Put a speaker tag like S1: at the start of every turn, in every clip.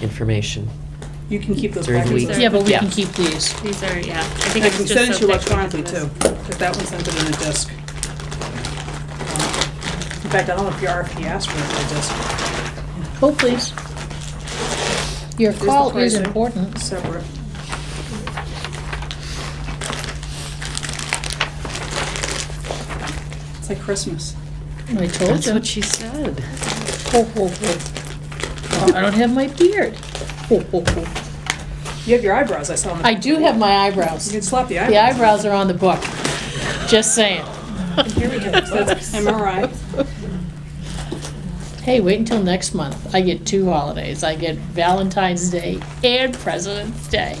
S1: information.
S2: You can keep those
S1: During the
S2: packages
S1: week.
S2: there.
S3: Yeah, but we
S1: Yeah.
S3: can keep these.
S4: These are, yeah, I
S2: I
S4: think it's
S2: can
S4: just so
S2: send it to you
S4: thick because of
S2: electronically too,
S4: this.
S2: because that one sent it in a disk. In fact, I don't know if your RFP asked for it in a disk,
S3: Oh, please. Your
S2: the
S3: call is
S2: pricing.
S3: important.
S2: separate. It's like Christmas.
S3: I told
S1: That's
S3: you.
S1: what she said.
S3: Ho, ho, ho. Oh, I don't have my beard. Ho, ho, ho.
S2: You have your eyebrows, I saw them.
S3: I do have my eyebrows.
S2: You can slap the
S3: The
S2: eyebrows.
S3: eyebrows are on the book. Just saying.
S2: Here we go, that's MRI.
S3: Hey, wait until next month. I get two holidays. I get Valentine's Day and President's Day.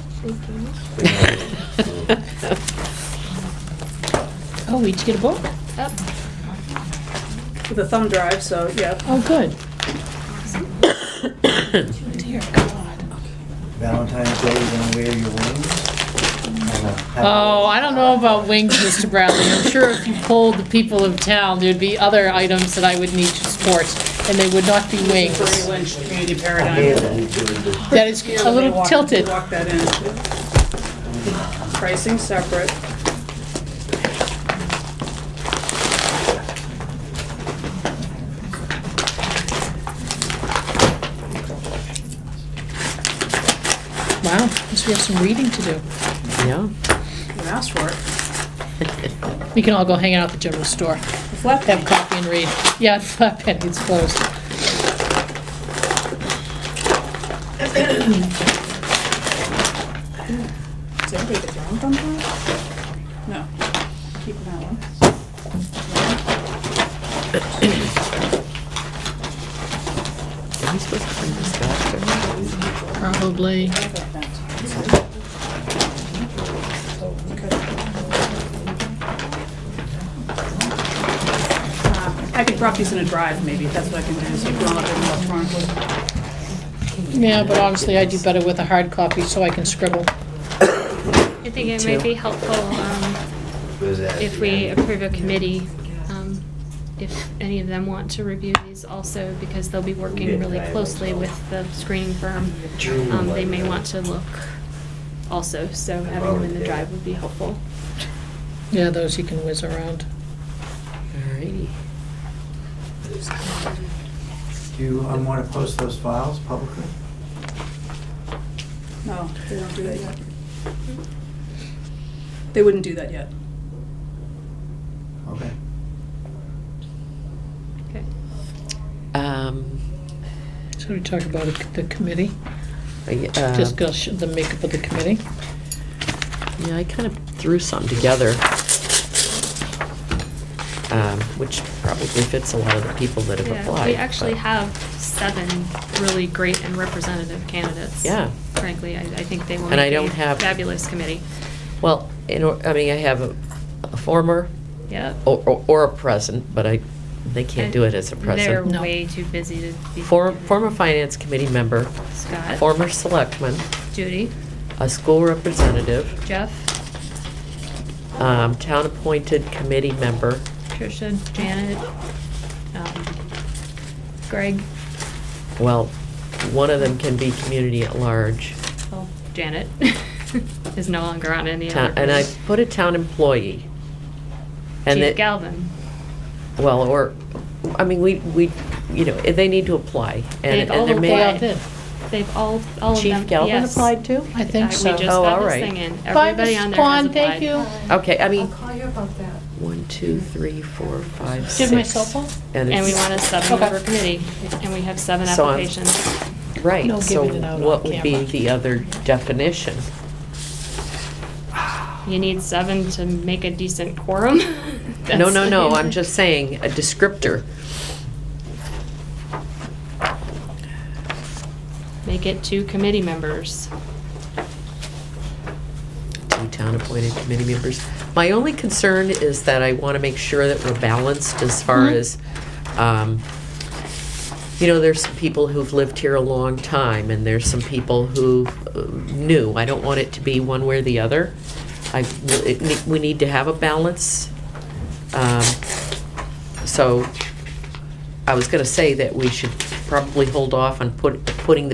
S3: Oh, we each get a book?
S2: With a thumb drive, so, yeah.
S3: Oh, good. Dear God.
S5: Valentine's Day, you're gonna wear your wings?
S3: Oh, I don't know about wings, Mr. Bradley. I'm sure if you polled the people of town, there'd be other items that I would need to support, and they would not be
S2: Bernie
S3: wings.
S2: Lynch, community
S5: Yeah,
S2: paradigm.
S5: that
S3: That is a little tilted.
S2: Walk that in. Pricing separate.
S3: Wow, guess we have some reading to do.
S1: Yeah.
S2: You asked for it.
S3: We can all go hang out at the general store,
S2: The flap
S3: have
S2: pen.
S3: coffee and read. Yeah, Flat Penny, it's closed.
S2: Does everybody get their own thumb drive? No. Keep that one.
S1: Are we supposed to bring this back?
S3: Probably.
S2: What about that? Uh, I could drop these in a drive, maybe, that's what I can do, so you can all have them electronically.
S3: Yeah, but honestly, I do better with a hard copy, so I can scribble.
S4: I think it might be helpful um,
S5: was at
S4: if
S5: the
S4: we
S5: end.
S4: approve a committee, um, if any of them want to review these also, because they'll be working really closely with the screening firm. Um, They may want to look also, so having them in the drive would be helpful.
S3: Yeah, those you can whiz around.
S1: Alrighty.
S5: Do you want to post those files publicly?
S2: No, they don't do that yet. They wouldn't do that yet.
S5: Okay.
S4: Okay.
S1: Um,
S3: So we talk about the committee,
S1: I, uh,
S3: discuss the makeup of the committee.
S1: Yeah, I kind of threw something together, um, which probably fits a lot of the people that have
S4: Yeah,
S1: applied.
S4: we actually
S1: but-
S4: have seven really great and representative candidates.
S1: Yeah.
S4: Frankly, I, I think they will
S1: And I
S4: make a
S1: don't have-
S4: fabulous committee.
S1: Well, in, or- I mean, I have a, a former
S4: Yeah.
S1: or, or- or a present, but I, they can't do it as a
S4: They're
S1: present.
S3: No.
S4: way too busy to be.
S1: For, former finance committee member,
S4: Scott.
S1: former selectman,
S4: Judy,
S1: a school representative,
S4: Jeff,
S1: um, town-appointed committee member,
S4: Tricia, Janet, um, Greg,
S1: well, one of them can be community at large.
S4: well, Oh, Janet is no longer on any
S1: Town-
S4: other.
S1: And I put a town employee. and
S4: Chief
S1: that-
S4: Galvin.
S1: Well, or, I mean, we, we, you know, they need to apply.
S4: They've
S1: and
S4: all
S1: and there
S3: They
S1: may
S3: all
S4: applied.
S3: did.
S4: They've all, all of them.
S1: Chief Galvin
S4: yes.
S1: applied too?
S3: I
S4: Uh,
S3: think so.
S4: We just
S1: Oh,
S4: got
S1: all
S4: this
S1: right.
S4: thing in.
S3: Bye,
S4: Everybody
S3: Mrs.
S4: on there has
S3: Kwan,
S4: applied.
S3: Thank you.
S1: Okay, I
S6: I'll
S1: mean,
S6: call you about that.
S1: one, two, three, four, five, six.
S3: Give my cell phone?
S4: And we
S1: it's-
S4: want a
S3: Okay.
S4: seven-member committee, and we have seven
S1: So I'm-
S4: applications.
S3: No
S1: Right, so
S3: giving it out on
S1: what would be
S3: camera.
S1: the other definition?
S4: You need seven to make a decent quorum.
S1: No,
S4: That's-
S1: no, no, I'm just saying, a descriptor.
S4: Make it two committee members.
S1: Two town-appointed committee members. My only concern is that I want to make sure that we're balanced as far
S3: Mhm.
S1: as, um, you know, there's some people who've lived here a long time, and there's some people who uh, new. I don't want it to be one way or the other. I, it ne- we need to have a balance. Um, So, I was gonna say that we should probably hold off on put, putting the